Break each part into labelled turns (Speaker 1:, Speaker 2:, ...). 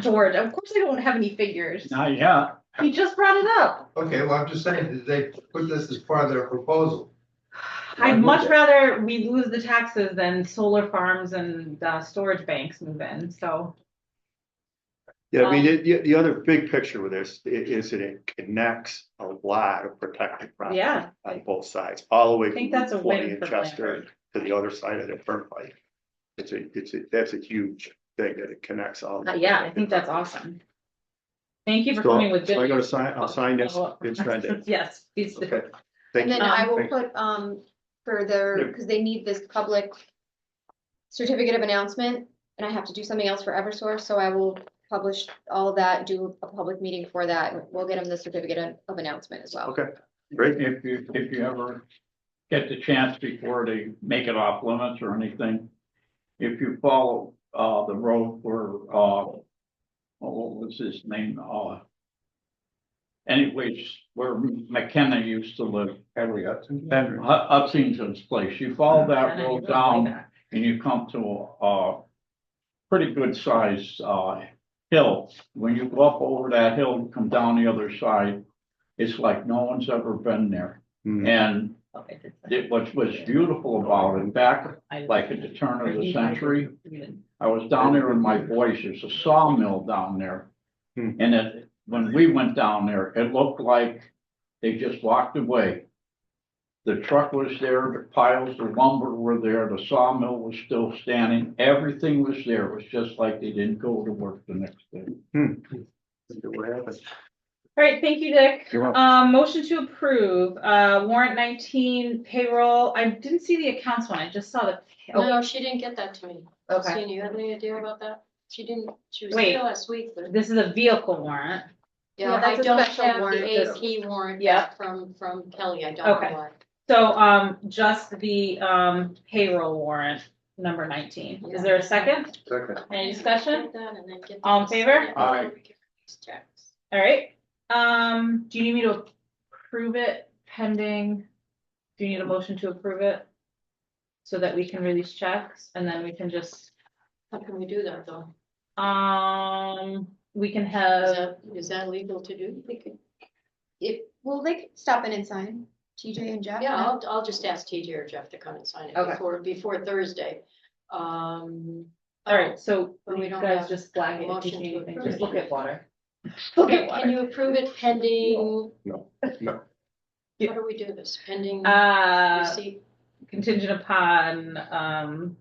Speaker 1: George, of course I don't have any figures.
Speaker 2: Not yet.
Speaker 1: He just brought it up.
Speaker 3: Okay, well, I'm just saying, did they put this as part of their proposal?
Speaker 1: I'd much rather we lose the taxes than solar farms and, uh, storage banks move in, so.
Speaker 4: Yeah, I mean,
Speaker 1: Um,
Speaker 4: the- the, the other big picture with this i- is that it connects a lot of protected property.
Speaker 1: Yeah.
Speaker 4: On both sides, all the way.
Speaker 1: I think
Speaker 4: from
Speaker 1: that's a
Speaker 4: Route 20
Speaker 1: win
Speaker 4: in
Speaker 1: for
Speaker 4: Chester
Speaker 1: Blanford.
Speaker 4: to the other side of the turnpike. It's a, it's a, that's a huge thing that it connects all.
Speaker 1: Uh, yeah, I think that's awesome. Thank you for coming with Oh.
Speaker 4: So I
Speaker 1: good.
Speaker 4: gotta sign, I'll sign this, it's Monday.
Speaker 1: Yes, please do.
Speaker 4: Okay. Thank
Speaker 5: And then
Speaker 4: you.
Speaker 5: I will
Speaker 4: Thank-
Speaker 5: put, um, for their, because they need this public certificate of announcement, and I have to do something else for Eversource, so I will publish all of that, do a public meeting for that. We'll get them the certificate of- of announcement as well.
Speaker 4: Okay. Great.
Speaker 2: If you, if you ever get the chance before they make it off limits or anything, if you follow, uh, the road where, uh, oh, what was his name, uh, anyways, where McKenna used to live, Harriet, Hu- Hutchinson's place, you follow that road down and you come to a pretty good sized uh hill. When you go up over that hill and come down the other side, it's like no one's ever been there.
Speaker 4: Hmm.
Speaker 2: And
Speaker 1: Oh,
Speaker 2: it, what was beautiful about it, back like at the turn of the century, I was down there in my voice, there's a sawmill down there.
Speaker 4: Hmm.
Speaker 2: And it, when we went down there, it looked like they just walked away. The truck was there, the piles of lumber were there, the sawmill was still standing, everything was there, it was just like they didn't go to work the next day.
Speaker 4: What happened?
Speaker 1: All right, thank you, Dick.
Speaker 4: You're welcome.
Speaker 1: Um, motion to approve, uh, warrant nineteen payroll. I didn't see the accounts one. I just saw the. oh,
Speaker 6: No, she didn't get that to me.
Speaker 1: Okay,
Speaker 6: Christine, you have any idea about that? She didn't, she was
Speaker 1: Wait.
Speaker 6: here last week, but.
Speaker 1: this is a vehicle warrant.
Speaker 5: Yeah,
Speaker 6: Yeah, I
Speaker 5: that's a
Speaker 6: don't
Speaker 5: special
Speaker 6: have
Speaker 5: warrant,
Speaker 6: the AP warrant
Speaker 1: Yeah.
Speaker 6: from, from Kelly, I don't know
Speaker 1: Okay.
Speaker 6: why.
Speaker 1: So, um, just the, um, payroll warrant, number nineteen. Is there a second?
Speaker 3: Second.
Speaker 1: Any discussion?
Speaker 6: Get that and then get
Speaker 1: All in
Speaker 6: these-
Speaker 1: favor?
Speaker 6: yeah,
Speaker 2: Aye.
Speaker 6: we can these checks.
Speaker 1: All right. Um, do you need me to approve it pending? Do you need a motion to approve it? So that we can release checks and then we can just,
Speaker 6: How can we do that though?
Speaker 1: um, we can
Speaker 6: Is
Speaker 1: have.
Speaker 6: that, is that legal to do? We could-
Speaker 5: If, well, they could stop in and sign, TJ and Jeff.
Speaker 6: Yeah, I'll, I'll just ask TJ or Jeff to come and sign it
Speaker 1: Okay.
Speaker 6: before, before Thursday. Um.
Speaker 1: All right, so
Speaker 6: But
Speaker 1: you
Speaker 6: we don't
Speaker 1: guys
Speaker 6: have
Speaker 1: just flag it, if you
Speaker 6: motion
Speaker 1: need
Speaker 6: to
Speaker 1: anything,
Speaker 6: approve
Speaker 1: just
Speaker 6: it.
Speaker 1: look at water. Look at
Speaker 6: oh, Can
Speaker 1: water.
Speaker 6: you approve it pending?
Speaker 4: No, no.
Speaker 1: Yeah.
Speaker 6: How do we do this? Pending
Speaker 1: Uh,
Speaker 6: receipt?
Speaker 1: contingent upon, um,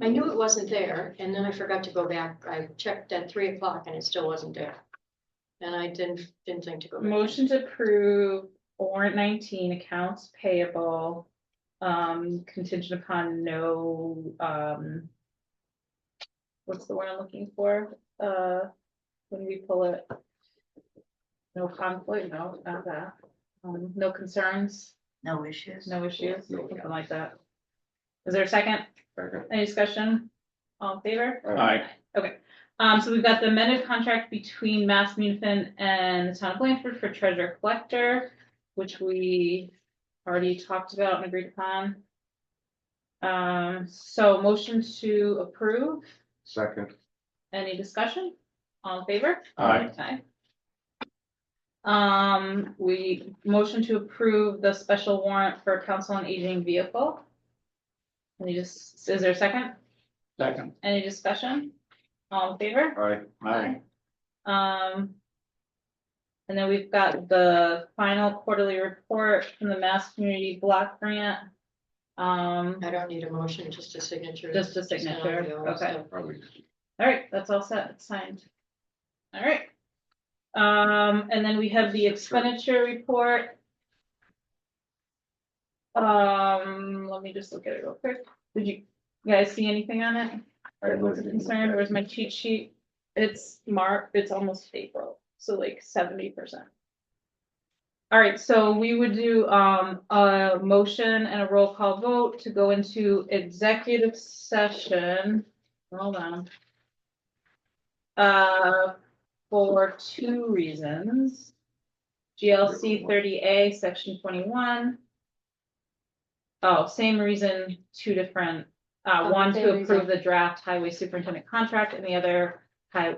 Speaker 6: I knew it wasn't there, and then I forgot to go back. I checked at three o'clock and it still wasn't there. And I didn't, didn't think to go. back.
Speaker 1: motion to approve warrant nineteen accounts payable. Um, contingent upon no, um. What's the word I'm looking for, uh, when we pull it? No conflict, no, not that, um, no concerns,
Speaker 7: No issues?
Speaker 1: no issues, something like that. Is there a second?
Speaker 4: Second.
Speaker 1: Any discussion? All in favor?
Speaker 4: All
Speaker 2: right.
Speaker 1: Um, so we've got the amended contract between Mass Munfin and the town of Blanford for treasure collector, which we already talked about and agreed upon. Um, so motion to approve,
Speaker 3: Second.
Speaker 1: any discussion? All in favor?
Speaker 2: Aye.
Speaker 1: Aye. Um, we motion to approve the special warrant for council on aging vehicle. Any just, is there a second?
Speaker 2: Second.
Speaker 1: Any discussion? All in favor?
Speaker 2: Aye.
Speaker 1: Um. And then we've got the final quarterly report from the Mass Community Block Grant. Um,
Speaker 6: I don't need a motion, just a signature.
Speaker 1: Just a
Speaker 6: It's not
Speaker 1: signature,
Speaker 6: the old
Speaker 1: okay.
Speaker 6: stuff.
Speaker 1: all right, that's all set, it's signed. All right. Um, and then we have the expenditure report. Um, let me just look at it real quick. Did you guys see anything on it? Or was it concerned? Where's my cheat sheet? It's March, it's almost April, so like seventy percent. All right, so we would do um a motion and a roll call vote to go into executive session. Hold on. Uh, for two reasons. GLC thirty A, section twenty-one. Oh, same reason, two different, uh,
Speaker 5: Oh,
Speaker 1: one
Speaker 5: same
Speaker 1: to
Speaker 5: reason.
Speaker 1: approve the draft highway superintendent contract and the other high,